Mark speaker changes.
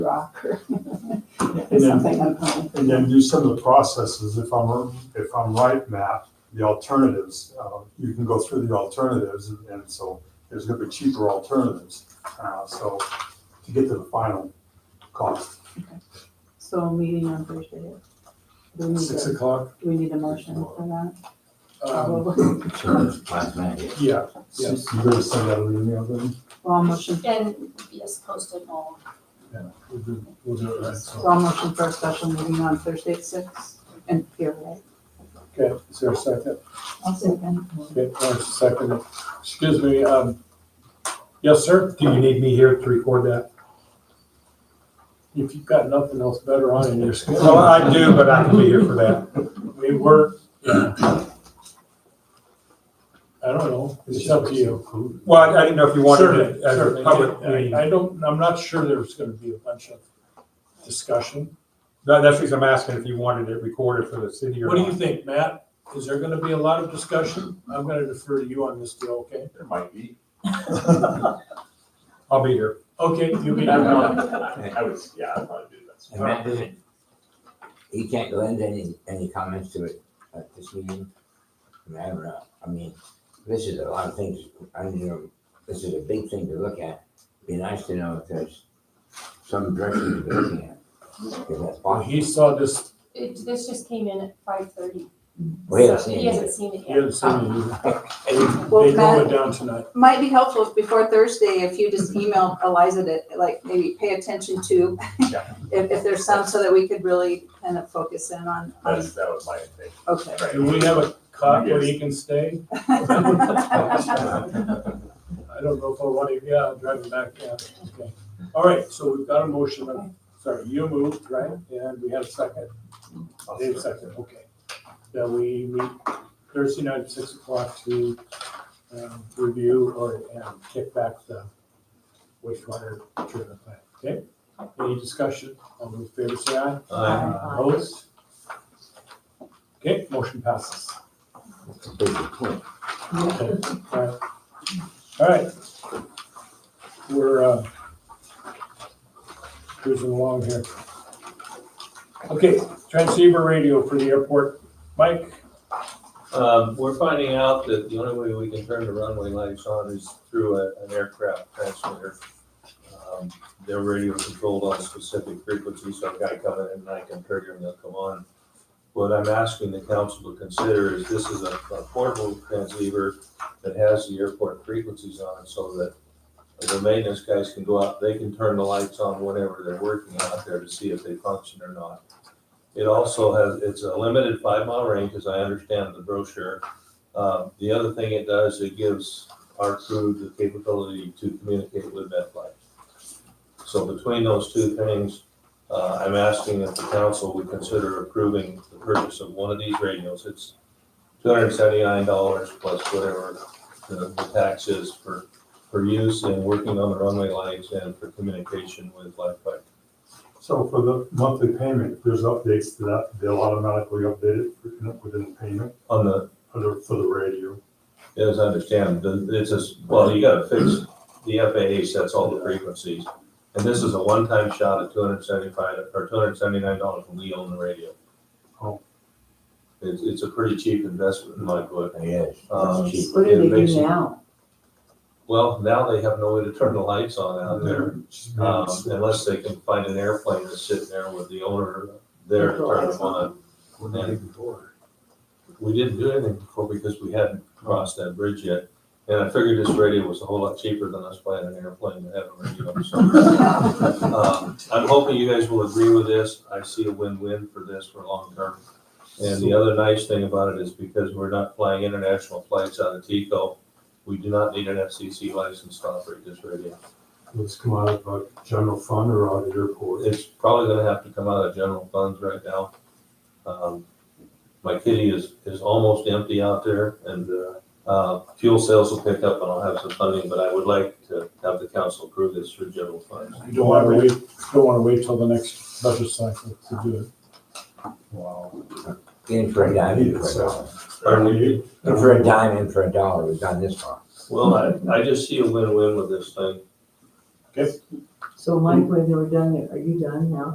Speaker 1: rock or
Speaker 2: And then,
Speaker 1: something uncommon.
Speaker 2: and then do some of the processes, if I'm, if I'm right, Matt, the alternatives, uh, you can go through the alternatives, and- and so there's gonna be cheaper alternatives, uh, so to get to the final cost.
Speaker 1: So meeting on Thursday. Do we need
Speaker 3: Six
Speaker 1: a,
Speaker 3: o'clock?
Speaker 1: do we need a motion for that?
Speaker 3: Um,
Speaker 1: Probably.
Speaker 4: Sure, last minute.
Speaker 2: Yeah.
Speaker 3: Yes.
Speaker 2: You better send out an email then.
Speaker 1: Well, I'll motion,
Speaker 5: And yes, post it all.
Speaker 3: We'll do we'll do it right,
Speaker 1: so
Speaker 3: so.
Speaker 1: I'll motion for a special meeting on Thursday at six and here, right?
Speaker 3: Okay, is there a second?
Speaker 1: I'll second.
Speaker 3: Okay, Lawrence, second. Excuse me, um, yes, sir? Do you need me here to record that? If you've got nothing else better on in your schedule.
Speaker 6: Well, I do, but I can be here for that.
Speaker 3: We were, I don't know, it's up to you.
Speaker 6: Well, I didn't know if you wanted
Speaker 3: Certainly,
Speaker 6: it as a
Speaker 3: certainly.
Speaker 6: public meeting.
Speaker 3: I I don't, I'm not sure there's gonna be a bunch of discussion.
Speaker 6: That- That's the reason I'm asking if you wanted it recorded for the city or
Speaker 3: What do you
Speaker 6: not.
Speaker 3: think, Matt? Is there gonna be a lot of discussion? I'm gonna defer to you on this deal, okay?
Speaker 4: There might be.
Speaker 6: I'll be here.
Speaker 3: Okay, you can.
Speaker 7: I was, yeah, I'd probably do that.
Speaker 4: And Matt doesn't, he can't lend any, any comments to it at this meeting? I mean, I don't know, I mean, this is a lot of things, I mean, this is a big thing to look at. Be nice to know if there's some direction to be looking at. If that's
Speaker 3: Well,
Speaker 4: possible.
Speaker 3: He saw this,
Speaker 5: It, this just came in at five thirty.
Speaker 4: We haven't seen
Speaker 5: He
Speaker 4: it.
Speaker 5: hasn't seen it
Speaker 3: he
Speaker 5: yet.
Speaker 3: hadn't seen it either.
Speaker 4: yet.
Speaker 1: Well,
Speaker 3: They
Speaker 1: Matt-
Speaker 3: drove it down tonight.
Speaker 1: Might be helpful if before Thursday, if you just email Eliza to, like, maybe pay attention to
Speaker 7: Yeah.
Speaker 1: if, if there's some, so that we could really kind of focus in on, on,
Speaker 7: That's, that was my thing.
Speaker 1: okay.
Speaker 3: Do we have a cot where he can stay? I don't know if I want to, yeah, I'll drive him back, yeah, okay. All right, so we've got a motion, on- sorry, you moved, right? And we had a second, Dave second, okay. That we meet Thursday night at six o'clock to um, review or um, kick back the wastewater treatment plant, okay? Any discussion? All those in favor say aye.
Speaker 8: Uh,
Speaker 1: Aye.
Speaker 3: Opposed? Okay, motion passes. Okay, all right. All right. We're uh, cruising along here. Okay, transceiver radio for the airport. Mike,
Speaker 8: Um, we're finding out that the only way we can turn the runway lights on is through a, an aircraft transmitter. Um, They're radio controlled on specific frequencies, so I've got to come in and I can trigger and they'll come on. What I'm asking the council to consider is this is a a portable transceiver that has the airport frequencies on it so that the maintenance guys can go out, they can turn the lights on whenever they're working out there to see if they function or not. It also has, it's a limited five mile range, as I understand the brochure. Uh, The other thing it does, it gives our crew the capability to communicate with MetLife. So between those two things, uh, I'm asking that the council would consider approving the purchase of one of these radios. It's two hundred and seventy-nine dollars plus whatever the the tax is for, for use in working on the runway lights and for communication with MetLife.
Speaker 2: So for the monthly payment, there's updates to that, they'll automatically update it within- within the payment
Speaker 8: On the
Speaker 2: for the, for the radio.
Speaker 8: As I understand, the- it's as, well, you gotta fix, the FAA sets all the frequencies. And this is a one-time shot at two hundred seventy-five, or two hundred seventy-nine dollars when we own the radio.
Speaker 2: Oh.
Speaker 8: It's, it's a pretty cheap investment in my book.
Speaker 4: Yes,
Speaker 8: Um,
Speaker 4: it's cheap.
Speaker 9: What do
Speaker 8: Yeah,
Speaker 9: they do
Speaker 8: basically.
Speaker 9: now?
Speaker 8: Well, now they have no way to turn the lights on out there,
Speaker 2: Just-
Speaker 8: um, unless they can find an airplane that's sitting there with the owner there to turn them on. We didn't do anything before because we hadn't crossed that bridge yet. And I figured this radio was a whole lot cheaper than us buying an airplane to have a radio. So, um, I'm hoping you guys will agree with this. I see a win-win for this for long term. And the other nice thing about it is because we're not flying international flights out of Tico, we do not need an FCC license to operate this radio.
Speaker 2: Let's come out of a general fund or out of your pool.
Speaker 8: It's probably gonna have to come out of general funds right now. Um, My kitty is, is almost empty out there and, uh, uh, fuel sales will pick up and I'll have some funding, but I would like to have the council approve this through general funds.
Speaker 3: you don't want to wait, don't want to wait till the next budget cycle to do it.
Speaker 2: Wow.
Speaker 4: In for a dime, in for a dollar.
Speaker 8: Pardon me?
Speaker 4: In for a dime, in for a dollar, we've done this far.
Speaker 8: Well, I, I just see a win-win with this thing.
Speaker 9: So Mike, when they were done, are you done now?